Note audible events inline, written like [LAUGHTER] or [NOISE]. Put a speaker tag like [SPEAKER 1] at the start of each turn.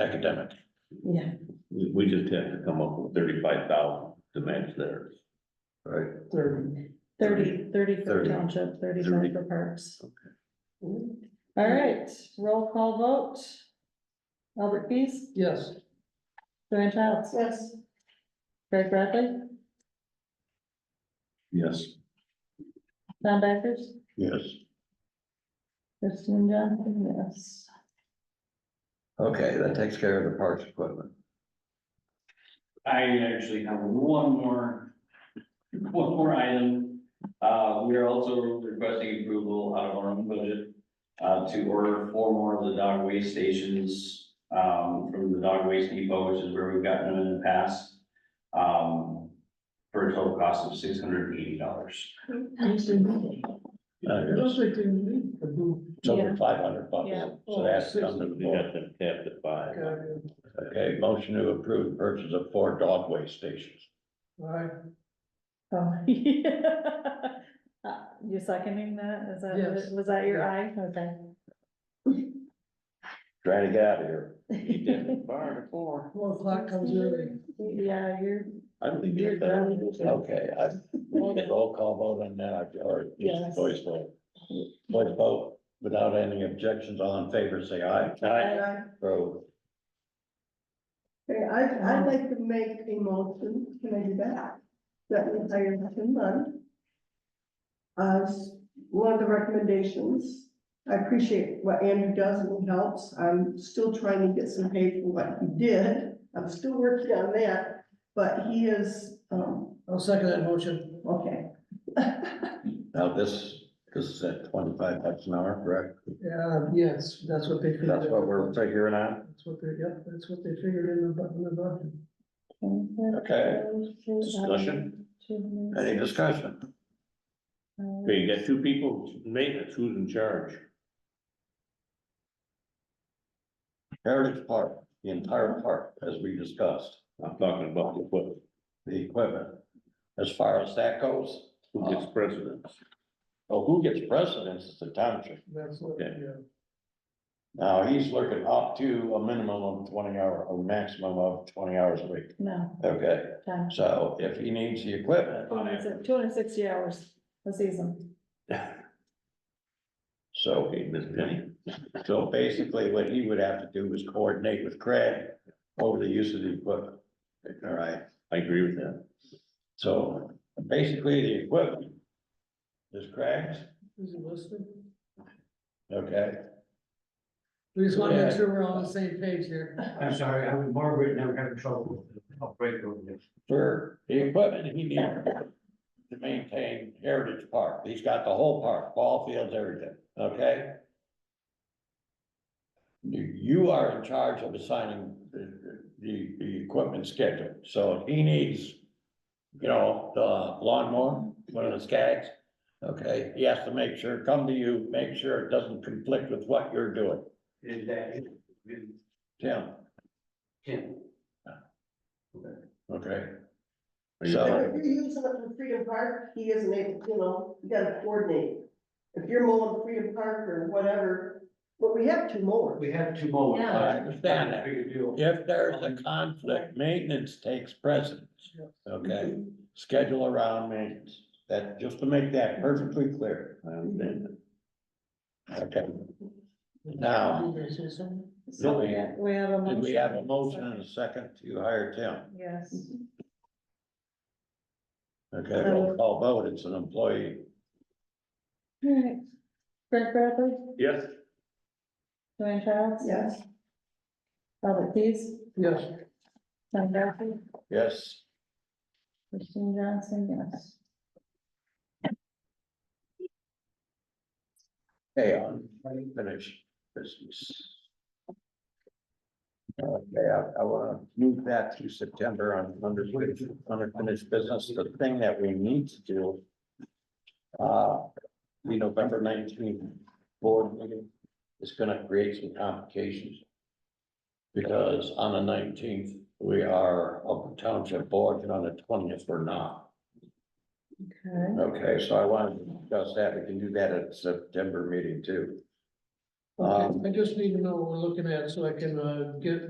[SPEAKER 1] academic.
[SPEAKER 2] Yeah,
[SPEAKER 3] We, we just have to come up with thirty-five thousand to match theirs.
[SPEAKER 1] Right.
[SPEAKER 4] thirty.
[SPEAKER 2] thirty, thirty for
[SPEAKER 1] 30.
[SPEAKER 2] township, thirty
[SPEAKER 3] Thirty.
[SPEAKER 2] for parks. All right, roll call vote. Albert Keys,
[SPEAKER 4] Yes.
[SPEAKER 2] Joanne Childs,
[SPEAKER 4] Yes.
[SPEAKER 2] Greg Bradley,
[SPEAKER 3] Yes.
[SPEAKER 2] Tom Backers,
[SPEAKER 3] Yes.
[SPEAKER 2] Kristen Johnson, yes.
[SPEAKER 1] Okay, that takes care of the parks equipment.
[SPEAKER 5] I actually have one more, one more item. Uh, we are also requesting approval out of our own budget, uh, to order four more of the dog waste stations, um, from the Dog Waste Depot, which is where we've gotten them in the past, um, for a total cost of six hundred and eighty dollars.
[SPEAKER 1] Uh,
[SPEAKER 4] Those are doing.
[SPEAKER 1] It's over
[SPEAKER 2] Yeah.
[SPEAKER 1] five hundred bucks.
[SPEAKER 2] Yeah.
[SPEAKER 1] So that's
[SPEAKER 3] Something
[SPEAKER 1] something to
[SPEAKER 3] we
[SPEAKER 1] the board.
[SPEAKER 3] got them capped at five.
[SPEAKER 1] Okay, motion to approve purchase of four dog waste stations.
[SPEAKER 2] Oh, [LAUGHS] yeah. Uh, You seconding that? Is
[SPEAKER 4] Yes.
[SPEAKER 2] that, was that your eye? Okay.
[SPEAKER 1] Trying to get out of here. [LAUGHS]
[SPEAKER 3] Bar four.
[SPEAKER 4] Four o'clock comes early.
[SPEAKER 2] Yeah, you're,
[SPEAKER 3] I believe
[SPEAKER 2] you're
[SPEAKER 3] it.
[SPEAKER 2] done.
[SPEAKER 1] Okay, I, we did roll call vote on that, or
[SPEAKER 2] Yes.
[SPEAKER 1] just voice vote. Voice vote, without any objections, all in favor, say aye. Vote.
[SPEAKER 6] Okay, I, I'd like to make a motion, can I do that? That we hire Tim Lund. As one of the recommendations, I appreciate what Andrew does and he helps, I'm still trying to get some pay for what he did. I'm still working on that, but he is, um,
[SPEAKER 4] I'll second that motion.
[SPEAKER 6] okay.
[SPEAKER 1] Now, this, this is at twenty-five bucks an hour, correct?
[SPEAKER 4] Yeah, Uh, yes, that's what they. figured
[SPEAKER 1] That's what
[SPEAKER 4] out.
[SPEAKER 1] we're figuring out.
[SPEAKER 4] That's what they, yep, that's what they figured in the, bu- in the budget.
[SPEAKER 1] Okay, discussion? Any discussion?
[SPEAKER 3] Okay, you got two people, maintenance, who's in charge?
[SPEAKER 1] Heritage Park, the entire park, as we discussed,
[SPEAKER 3] I'm talking about the, what,
[SPEAKER 1] the equipment. As far as that goes,
[SPEAKER 3] who gets precedence?
[SPEAKER 1] oh, who gets precedence is the township.
[SPEAKER 4] That's what,
[SPEAKER 3] Okay.
[SPEAKER 4] yeah.
[SPEAKER 1] Now, he's looking up to a minimum of twenty hour, a maximum of twenty hours a week.
[SPEAKER 2] No,
[SPEAKER 1] Okay,
[SPEAKER 2] time.
[SPEAKER 1] so if he needs the equipment,
[SPEAKER 2] Two hundred and sixty hours a season.
[SPEAKER 1] so,
[SPEAKER 3] Okay, Miss Penny,
[SPEAKER 1] so basically what he would have to do is coordinate with Craig over the use of the equipment. All right,
[SPEAKER 3] I agree with that.
[SPEAKER 1] so basically the equipment is Craig's,
[SPEAKER 4] Is it listed?
[SPEAKER 1] okay?
[SPEAKER 4] We just want to make
[SPEAKER 1] Yeah.
[SPEAKER 4] sure we're on the same page here.
[SPEAKER 7] I'm sorry, I was Margaret, and I'm having trouble with the operator over there.
[SPEAKER 1] For the equipment he needs to maintain Heritage Park, he's got the whole park, ball fields, everything, okay? You, you are in charge of assigning the, the, the equipment schedule, so if he needs, you know, the lawnmower, one of the skags, okay, he has to make sure, come to you, make sure it doesn't conflict with what you're doing,
[SPEAKER 7] Is that, it? Is-
[SPEAKER 1] Tim,
[SPEAKER 7] Tim?
[SPEAKER 1] okay?
[SPEAKER 3] Are you-
[SPEAKER 1] So-
[SPEAKER 6] If you're using it for Freedom Park, he isn't able, you know, you gotta coordinate. If you're mowing Freedom Park or whatever, but we have two mowers.
[SPEAKER 7] We have two more.
[SPEAKER 2] Yeah.
[SPEAKER 1] I understand that.
[SPEAKER 7] Big deal.
[SPEAKER 1] If there's a conflict, maintenance takes precedence, okay? Schedule around maintenance, that, just to make that perfectly clear,
[SPEAKER 3] I understand that.
[SPEAKER 1] okay? Now,
[SPEAKER 2] So
[SPEAKER 1] we-
[SPEAKER 2] we have- we have a motion.
[SPEAKER 1] did we have a motion and a second to hire Tim?
[SPEAKER 2] Yes.
[SPEAKER 1] Okay, roll call vote, it's an employee.
[SPEAKER 2] All right. Greg Bradley,
[SPEAKER 3] Yes.
[SPEAKER 2] Joanne Childs.
[SPEAKER 6] Yes.
[SPEAKER 2] Albert Keys,
[SPEAKER 4] Yes.
[SPEAKER 2] Tom Backers,
[SPEAKER 1] Yes,
[SPEAKER 2] Kristen Johnson, yes.
[SPEAKER 1] hey, on, finish business. Okay, I, I wanna move that to September on under, unfinished business, the thing that we need to do. Uh, the November nineteenth board meeting is gonna create some complications. Because on the nineteenth, we are up the township board, and on the twentieth, we're not.
[SPEAKER 2] Okay.
[SPEAKER 1] Okay, so I wanted to discuss that, we can do that at September meeting too.
[SPEAKER 4] Okay,
[SPEAKER 1] Um,
[SPEAKER 4] I just need to know what we're looking at so I can, uh, get